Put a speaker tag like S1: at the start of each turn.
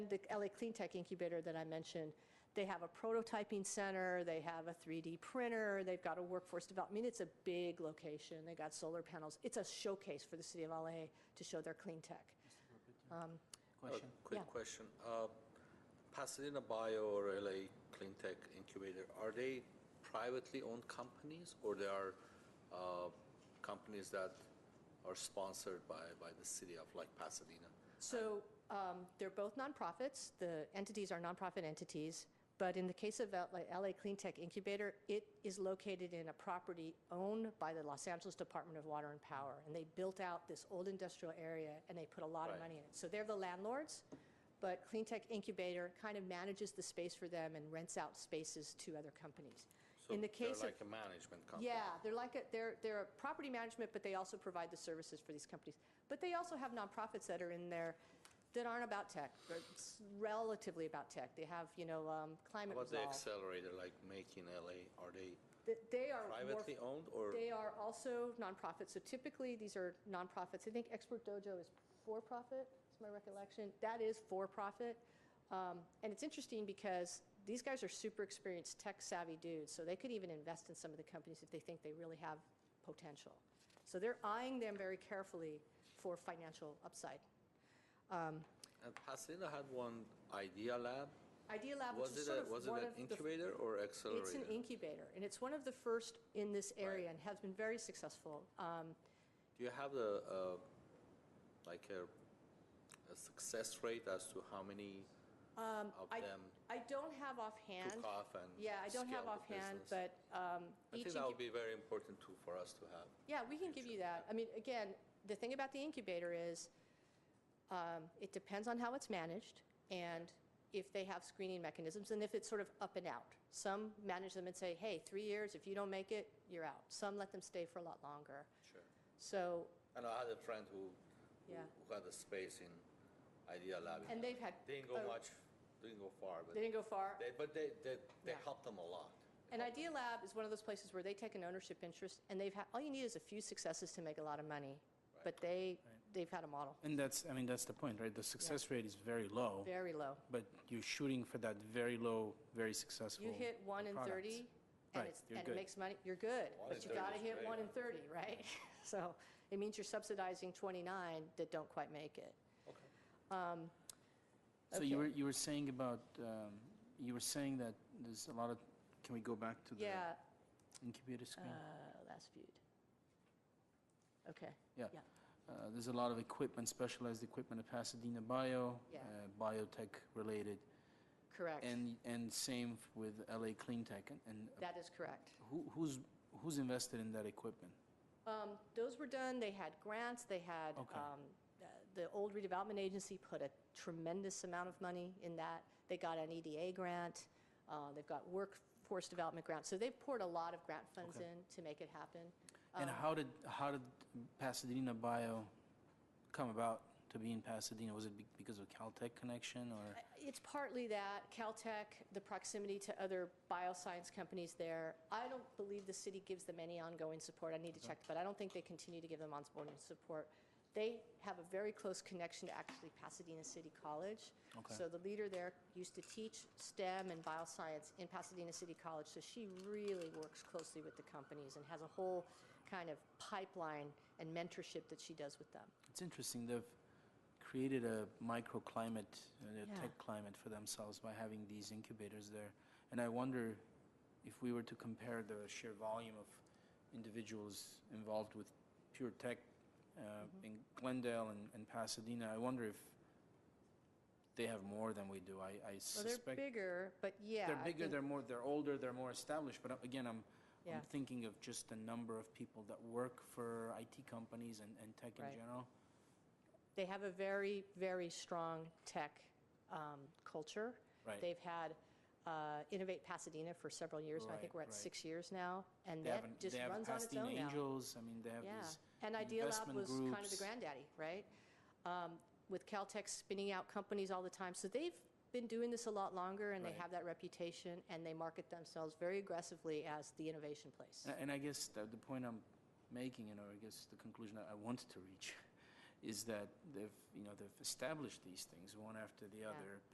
S1: the LA Clean Tech Incubator that I mentioned, they have a prototyping center, they have a 3D printer, they've got a workforce development. I mean, it's a big location. They got solar panels. It's a showcase for the city of LA to show their clean tech.
S2: Question?
S1: Yeah.
S3: Oh, Quick question. Uh, Pasadena Bio or LA Cleantech Incubator, are they privately owned companies or they are uh, companies that are sponsored by, by the city of like Pasadena?
S1: So um, they're both nonprofits. The entities are nonprofit entities. But in the case of L- like LA Clean Tech Incubator, it is located in a property owned by the Los Angeles Department of Water and Power. And they built out this old industrial area and they put a lot of
S3: Right.
S1: money in it. So they're the landlords, but Clean Tech Incubator kind of manages the space for them and rents out spaces to other companies.
S3: So
S1: In the case
S3: They're
S1: of
S3: like a management company?
S1: yeah, they're like, a- they're, they're a property management, but they also provide the services for these companies. But they also have nonprofits that are in there that aren't about tech, but it's relatively about tech. They have, you know, um,
S3: How
S1: climate
S3: about the
S1: resolve.
S3: accelerator, like making LA, are they
S1: Th- They are Uh, more-
S3: privately owned or?
S1: They are also nonprofits. So typically, these are nonprofits. I think Expert Dojo is for-profit, is my recollection. That is for-profit. Um, And it's interesting because these guys are super experienced, tech-savvy dudes, so they could even invest in some of the companies if they think they really have potential. So they're eyeing them very carefully for financial upside.
S3: And Pasadena had one Idea Lab?
S1: Idea Lab, which
S3: Was
S1: is
S3: it,
S1: sort
S3: a-
S1: of
S3: was it
S1: one
S3: an
S1: of the
S3: incubator or accelerator?
S1: It's an incubator, and it's one of the first in this area
S3: Right.
S1: and has been very successful. Um,
S3: Do you have the, uh, like a, a success rate as to how many of
S1: Um, I-
S3: them
S1: I don't have offhand.
S3: took off and
S1: Yeah, I don't have
S3: scaled the
S1: offhand,
S3: business?
S1: but um,
S3: I
S1: each,
S3: think that would
S1: incu-
S3: be very important too for us to have.
S1: yeah, we can give you that. I mean, again, the thing about the incubator is, um, it depends on how it's managed, and if they have screening mechanisms, and if it's sort of up and out. Some manage them and say, hey, three years, if you don't make it, you're out. Some let them stay for a lot longer.
S3: Sure.
S1: So,
S3: And I had a friend who, who
S1: Yeah.
S3: who had a space in Idea Lab.
S1: and they've had.
S3: Didn't go
S1: a-
S3: much, didn't go far, but
S1: They didn't go far.
S3: they, but they, they, they
S1: Yeah.
S3: helped them a lot.
S1: And Idea Lab is one of those places where they take an ownership interest, and they've had, all you need is a few successes to make a lot of money. But they, they've had a model,
S2: And that's, I mean, that's the point, right? The success rate is very low,
S1: very low.
S2: but you're shooting for that very low, very successful.
S1: You hit one in
S2: product.
S1: 30,
S2: Right,
S1: and it's,
S2: you're
S1: and it
S2: good.
S1: makes money, you're good.
S3: One in
S1: But you
S3: 30
S1: gotta
S3: is
S1: hit
S3: great.
S1: one in 30, right? So it means you're subsidizing 29 that don't quite make it. Um,
S2: So you
S1: okay.
S2: were, you were saying about, um, you were saying that there's a lot of, can we go back to the
S1: Yeah,
S2: incubator screen?
S1: uh, last viewed. Okay.
S2: Yeah. Uh, There's a lot of equipment, specialized equipment at Pasadena Bio,
S1: Yeah.
S2: uh, biotech related,
S1: Correct.
S2: and, and same with LA Clean Tech. And- And
S1: That is correct.
S2: who- who's, who's invested in that equipment?
S1: Um, Those were done, they had grants, they had,
S2: Okay.
S1: um, uh, the old redevelopment agency put a tremendous amount of money in that. They got an EDA grant, uh, they've got workforce development grants. So they've poured a lot of grant funds
S2: Okay.
S1: in to make it happen.
S2: And
S1: Um,
S2: how did, how did Pasadena Bio come about to be in Pasadena? Was it be- because of Caltech connection or?
S1: It's partly that, Caltech, the proximity to other bioscience companies there. I don't believe the city gives them any ongoing support. I need to check, but I don't think they continue to give them ongoing support. They have a very close connection to actually Pasadena City College.
S2: Okay.
S1: So the leader there used to teach STEM and bioscience in Pasadena City College, so she really works closely with the companies and has a whole kind of pipeline and mentorship that she does with them.
S2: It's interesting, they've created a microclimate, a
S1: Yeah.
S2: tech climate for themselves by having these incubators there. And I wonder if we were to compare the sheer volume of individuals involved with pure tech uh,
S1: Mm-hmm.
S2: in Glendale and and Pasadena, I wonder if they have more than we do. I I
S1: Well, they're
S2: suspect.
S1: bigger, but yeah.
S2: They're
S1: I
S2: bigger,
S1: think-
S2: they're more, they're older, they're more established, but uh, again, I'm,
S1: Yeah.
S2: I'm thinking of just the number of people that work for IT companies and, and tech in
S1: Right.
S2: general.
S1: they have a very, very strong tech um, culture.
S2: Right.
S1: They've had uh, Innovate Pasadena for several years, and I think
S2: Right,
S1: we're at
S2: right.
S1: six years now, and
S2: They have, an-
S1: that just
S2: they have
S1: runs on its
S2: Pasadena
S1: own now.
S2: Angels, I mean, they have
S1: Yeah,
S2: these
S1: and Idea Lab
S2: investment
S1: was
S2: groups.
S1: kind of the granddaddy, right? Um, With Caltech spinning out companies all the time, so they've been doing this a lot longer, and they
S2: Right.
S1: have that reputation, and they market themselves very aggressively as the innovation place.
S2: A- And I guess the, the point I'm making, you know, I guess the conclusion I I wanted to reach is that they've, you know, they've established these things one after the other,